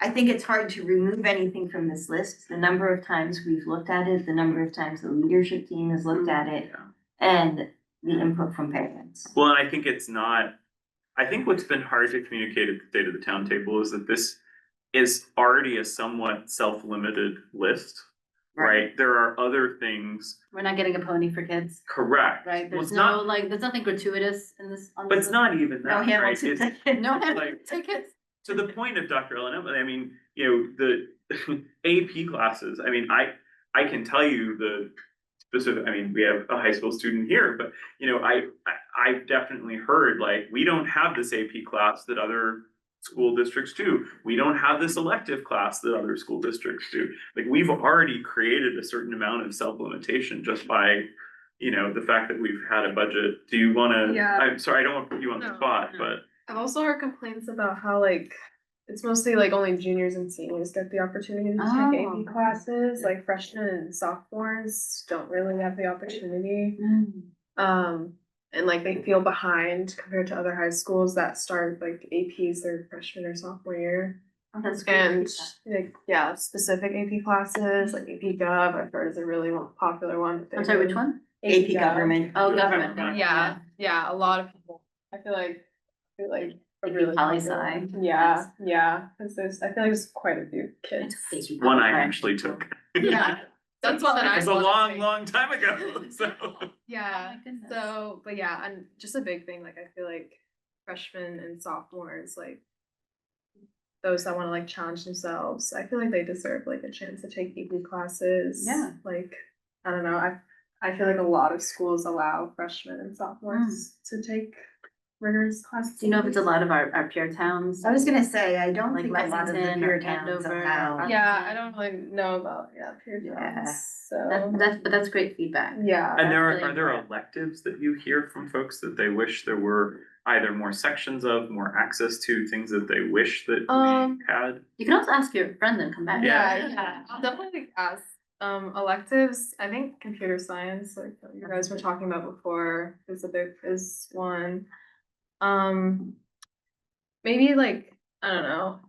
I think it's hard to remove anything from this list. The number of times we've looked at it, the number of times the leadership team has Hmm. looked at it, Yeah. and the input from parents. Well, and I think it's not, I think what's been hard to communicate at the state of the town table is that this is already a somewhat self-limited list, right? There are other things, We're not getting a pony for kids, correct? right? Well, There's it's not- no, like, there's nothing gratuitous in this. on But this it's not even No that, right? It's- Hamilton. No like- tickets. to the point of Dr. Ellen, Emily, I mean, you know, the AP classes, I mean, I, I can tell you the specific, I mean, we have a high school student here, but, you know, I, I, I've definitely heard, like, we don't have this AP class that other school districts do. We don't have this elective class that other school districts do. Like, we've already created a certain amount of self-limitation just by, you know, the fact that we've had a budget. Do you wanna, Yeah. I'm sorry, I don't want to put you on the No, spot, no. but I've also heard complaints about how like it's mostly like only juniors and seniors get the opportunity to take Oh. AP classes. Like freshmen and sophomores don't really have the opportunity. Mm. Um, and like they feel behind compared to other high schools that start like APs their freshman or sophomore year. And like yeah, specific AP classes like AP Gov. I've heard is a really one- popular one. that they I'm sorry, really- which one? AP government. Oh, government. Government. Yeah, yeah, a lot of people. I feel like, I feel like. a Like really poli popular one. sci, Yeah, yes. yeah, cause there's, I feel like there's quite a few kids. It's one I actually took. Yeah, that's one that I. It's a wanted to long, make. long time ago, so. Yeah, so, but yeah, and just a big thing, like I feel like freshmen and sophomores, like. Those that wanna like challenge themselves, I feel like they deserve like a chance to take evening classes. Yeah. Like, I don't know, I, I feel like a lot of schools allow freshmen and sophomores to take rigorous classes. Hmm. Do you know if it's a lot of our, our peer towns? I was gonna say, I don't Like think a lot of the Lexington or peer towns Andover or- allow. Yeah, I don't really know about, yeah, peer Yeah. jobs, That, so, that's, but that's great feedback. yeah. And there That's are, really are there important. electives that you hear from folks that they wish there were either more sections of, more access to, things that they wish that Um, we had? You can also ask your friend and come back. yeah, yeah, I'll definitely ask, um, electives, I think computer science, like what you guys were talking about before, is a big, is one. Um, maybe like, I don't know,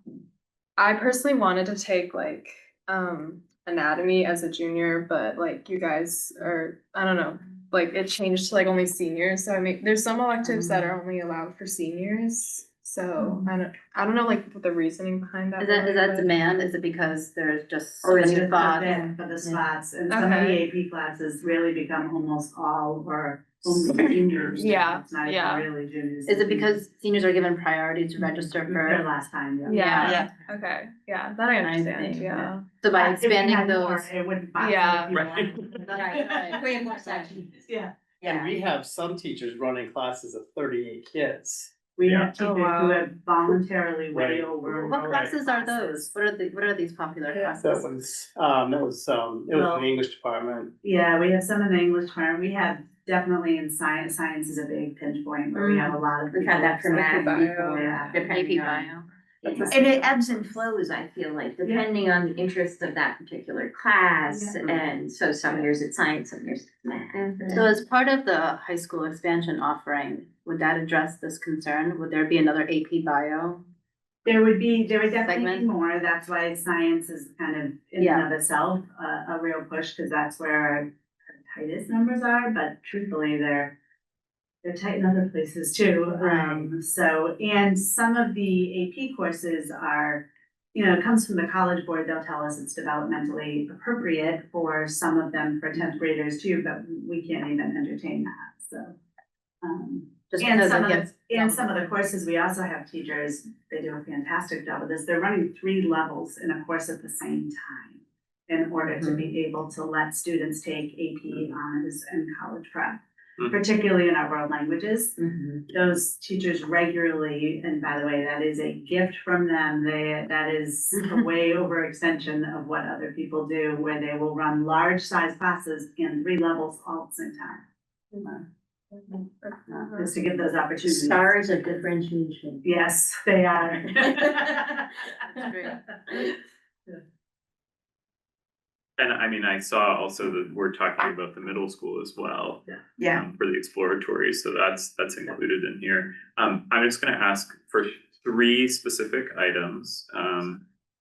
I personally wanted to take like, um, anatomy as a junior, but like you guys are, I don't know, like it changed to like only seniors. So I mean, there's some electives that Mm-hmm. are only allowed for seniors. So I don't, I don't know like what the reasoning behind that. Is that, was, is that but- demand? Is it because there's just so Or is many it thoughts? then for the spots, and some of the AP classes really become almost all or only juniors. Yeah, It's not yeah. even really juniors. Is it because seniors are given priority to register Their for, last time, yeah. Yeah. Yeah. Okay, yeah, that I Kind of understand, thing, yeah. so by If we had expanding more, those? It wouldn't bother Yeah. people. Right. Right, right. Way more sections. Yeah, And we have some teachers running classes of thirty-eight kids. we Yeah. have Oh, teachers who wow. have voluntarily way Right. over. What classes are those? classes. What are the, what are these popular Yeah. That classes? was, um, that was, um, it was Well- an English department. Yeah, we have some in the English department, we have definitely in science, science is a big pinch point, where Mm. we have a lot of. We've had that for people. math Bio. uh, before, AP depending on. bio. That's And it ebbs and flows, I feel like, depending on the interests of that particular class, Yeah. and so some years it's science, some years it's math. So as part of the high school expansion offering, would that address this concern? Would there be another AP bio? There would be, there would definitely Segment. be more, that's why science is kind of in Yeah. and of itself a, a real push, cause that's where our tightest numbers are, but truthfully, they're they're tight in other places too, um, so, and some of the AP courses are, you know, it comes from the college board, they'll tell us it's developmentally appropriate for some of them for tenth graders too, but we can't even entertain that, so. Um, Just and because some it of, gets. and some of the courses, we also have teachers, they do a fantastic job of this, they're running three levels in a course at the same time. In order to be able to let students take AP honors and college prep, Mhm. particularly in our world languages. Mhm. Those teachers regularly, and by the way, that is a gift from them, they, that is a way overextension of what other people do. Where they will run large size classes in three levels all at the same time, just to give those opportunities. Stars of differentiation. Yes, they are. And I mean, I saw also that we're talking about the middle school as well. Yeah. um, For the exploratory, so that's, that's included in here. Um, I'm just gonna ask for three specific items. Um,